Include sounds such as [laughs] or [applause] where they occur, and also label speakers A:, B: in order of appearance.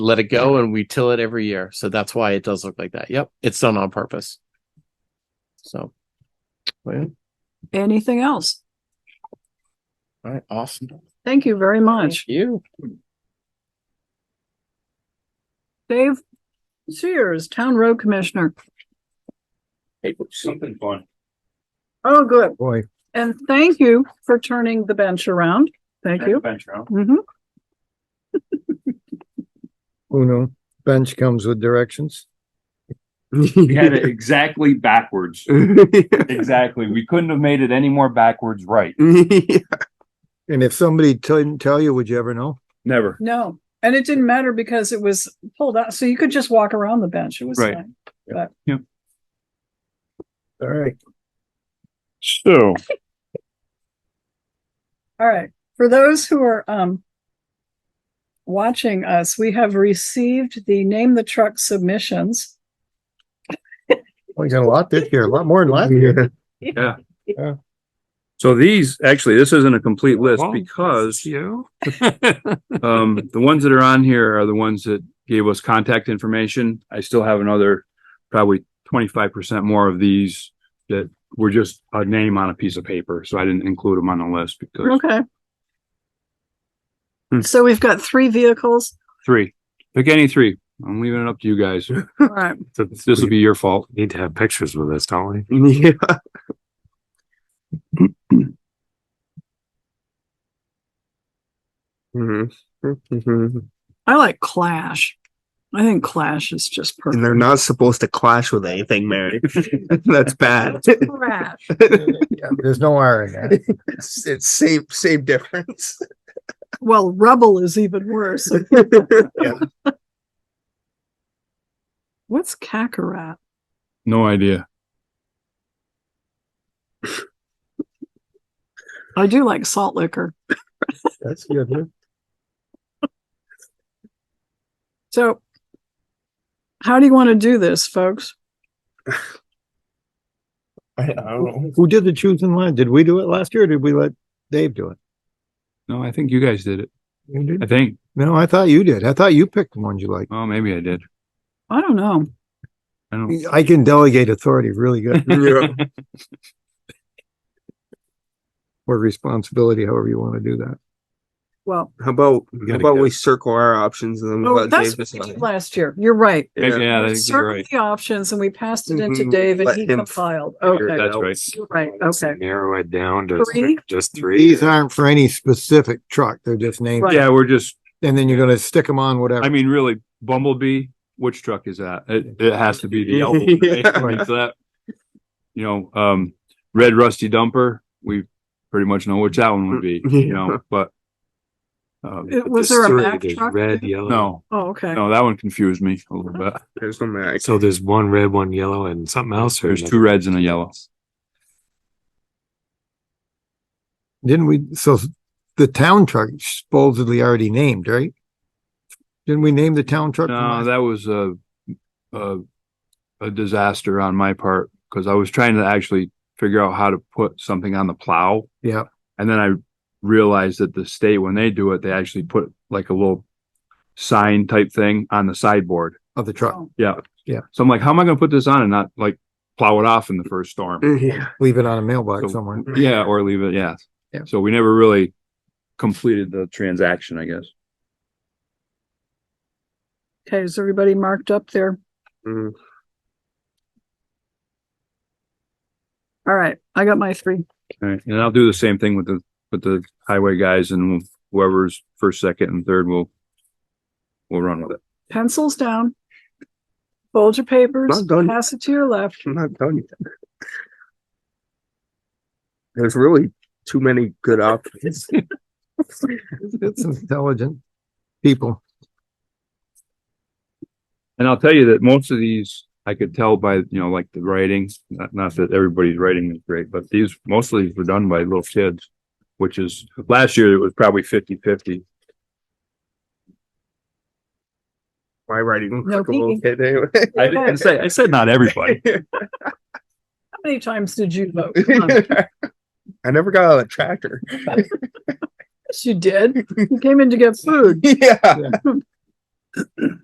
A: let it go and we till it every year. So that's why it does look like that. Yep. It's done on purpose. So. well,
B: Anything else?
A: All right. Awesome.
B: Thank you very much.
A: You.
B: Dave Sears, Town Road Commissioner.
C: Hey, something fun.
B: Oh, good.
D: Boy,
B: And thank you for turning the bench around. Thank you.
C: Venture out.
B: Mhm.
D: Uno, bench comes with directions.
C: We had it exactly
E: [laughs]
C: backwards. Exactly. We couldn't have made it any more backwards right.
B: [laughs]
D: And if somebody didn't tell you, would you ever know?
C: Never.
B: No, and it didn't matter because it was pulled out, so you could just walk around the bench. It was
C: Right.
B: fine.
D: All right.
E: So,
B: All right. For those who are um watching us, we have received the name the truck submissions.
D: We got a lot this year, a lot more than last [laughs] year.
F: So these, actually, this isn't a complete list
E: Well,
F: because,
E: you.
F: [laughs]
E: [laughs]
F: um, the ones that are on here are the ones that gave us contact information. I still have another probably twenty-five percent more of these that were just a name on a piece of paper, so I didn't include them on the list because
B: Okay.
F: Hmm.
B: So we've got three vehicles.
F: three, pick any three. I'm leaving it up to you guys.
E: [laughs]
B: All right.
F: This will be your fault.
E: Need to have pictures with us, don't we?
A: Yeah.
E: Mhm.
B: I like Clash. I think Clash is just
E: And
B: perfect.
E: they're not supposed to clash with anything, Mary. [laughs] That's
B: [laughs]
E: bad.
B: Clash.
D: There's no R in that.
E: It's, it's same, same difference.
B: Well, Rebel is even worse. What's Kakarot?
F: No idea.
B: I do like salt liquor.
D: That's good. huh?
B: So how do you want to do this, folks?
E: I, I don't know.
D: [laughs] Who did the choosing line? Did we do it last year? or Did we let Dave do it?
F: No, I think you guys did it.
D: You did?
F: I think.
D: No, I thought you did. I thought you picked the ones you liked.
F: Oh, maybe I did.
B: I don't know.
F: I don't.
D: I can delegate authority really [laughs] good
E: Yeah.
D: or responsibility, however you want to do that.
B: Well,
E: How about, how
F: gotta
E: about
F: go.
E: we circle our options and then
B: oh,
E: we'll let
B: that's
E: Dave
B: what we
E: decide?
B: did last year. You're right.
F: Maybe- Yeah, I think you're
B: Circle
F: right.
B: the options and we passed it into
E: Mhm.
B: Dave and
E: Let
B: he
E: him
B: compiled.
E: figure it
B: Okay.
F: That's
E: out.
F: right.
B: You're Right. Okay.
E: Narrow it down
B: Three?
E: just
D: These aren't for any specific truck. They're just named.
B: Right.
F: Yeah, we're just
D: And then you're going to stick them on whatever.
F: I mean, really, Bumblebee, which truck is that? It, it has to be the Elbow. right? I mean, so that- You know, um, Red Rusty Dumper, we pretty much know which that one would be, you know, but. Um,
B: It- Was there a Mack truck?
G: Red,
B: too?
G: yellow.
F: no,
B: Oh, okay.
F: no, that one confused me a little bit.
E: There's no max.
G: So there's one red, one yellow, and something else. or
F: There's
G: no?
F: two reds and a yellow.
D: Didn't we, so the town truck supposedly already named, right? Didn't we name the town truck? from
F: No,
D: last-
F: that was a, a, a disaster on my part, because I was trying to actually figure out how to put something on the plow.
D: Yeah.
F: And then I realized that the state, when they do it, they actually put like a little sign type thing on the sideboard.
D: Of the truck,
B: Oh,
F: So I'm like, how am I gonna put this on and not like plow it off in the first storm?
E: Mm, Yeah.
D: leave it on a
F: So-
D: mailbox somewhere.
F: Yeah, or leave it, yeah.
D: Yeah.
F: So we never really completed the transaction, I guess.
B: Okay. Is everybody marked up there?
E: Mm.
B: All right. I got my three.
F: All right, and I'll do the same thing with the, with the highway guys and whoever's first, second and third will, will run with it.
B: Pencils down. Fold your papers,
E: Not done.
B: pass it to your left.
E: I'm not done yet. There's really too many good options.
D: It's intelligent people.
F: And I'll tell you that most of these, I could tell by, you know, like the writing, not, not that everybody's writing is great, but these, most of these were done by little kids, which is, last year it was probably fifty fifty.
E: My writing looks
B: No
E: like a little
B: peeking.
E: kid anyway.
F: I didn't say, I said not everybody.
B: How many times did you
E: [laughs]
B: vote? Come on.
E: I never got out of the tractor. [laughs]
B: Yes, you did. You came in to get food.
E: Yeah.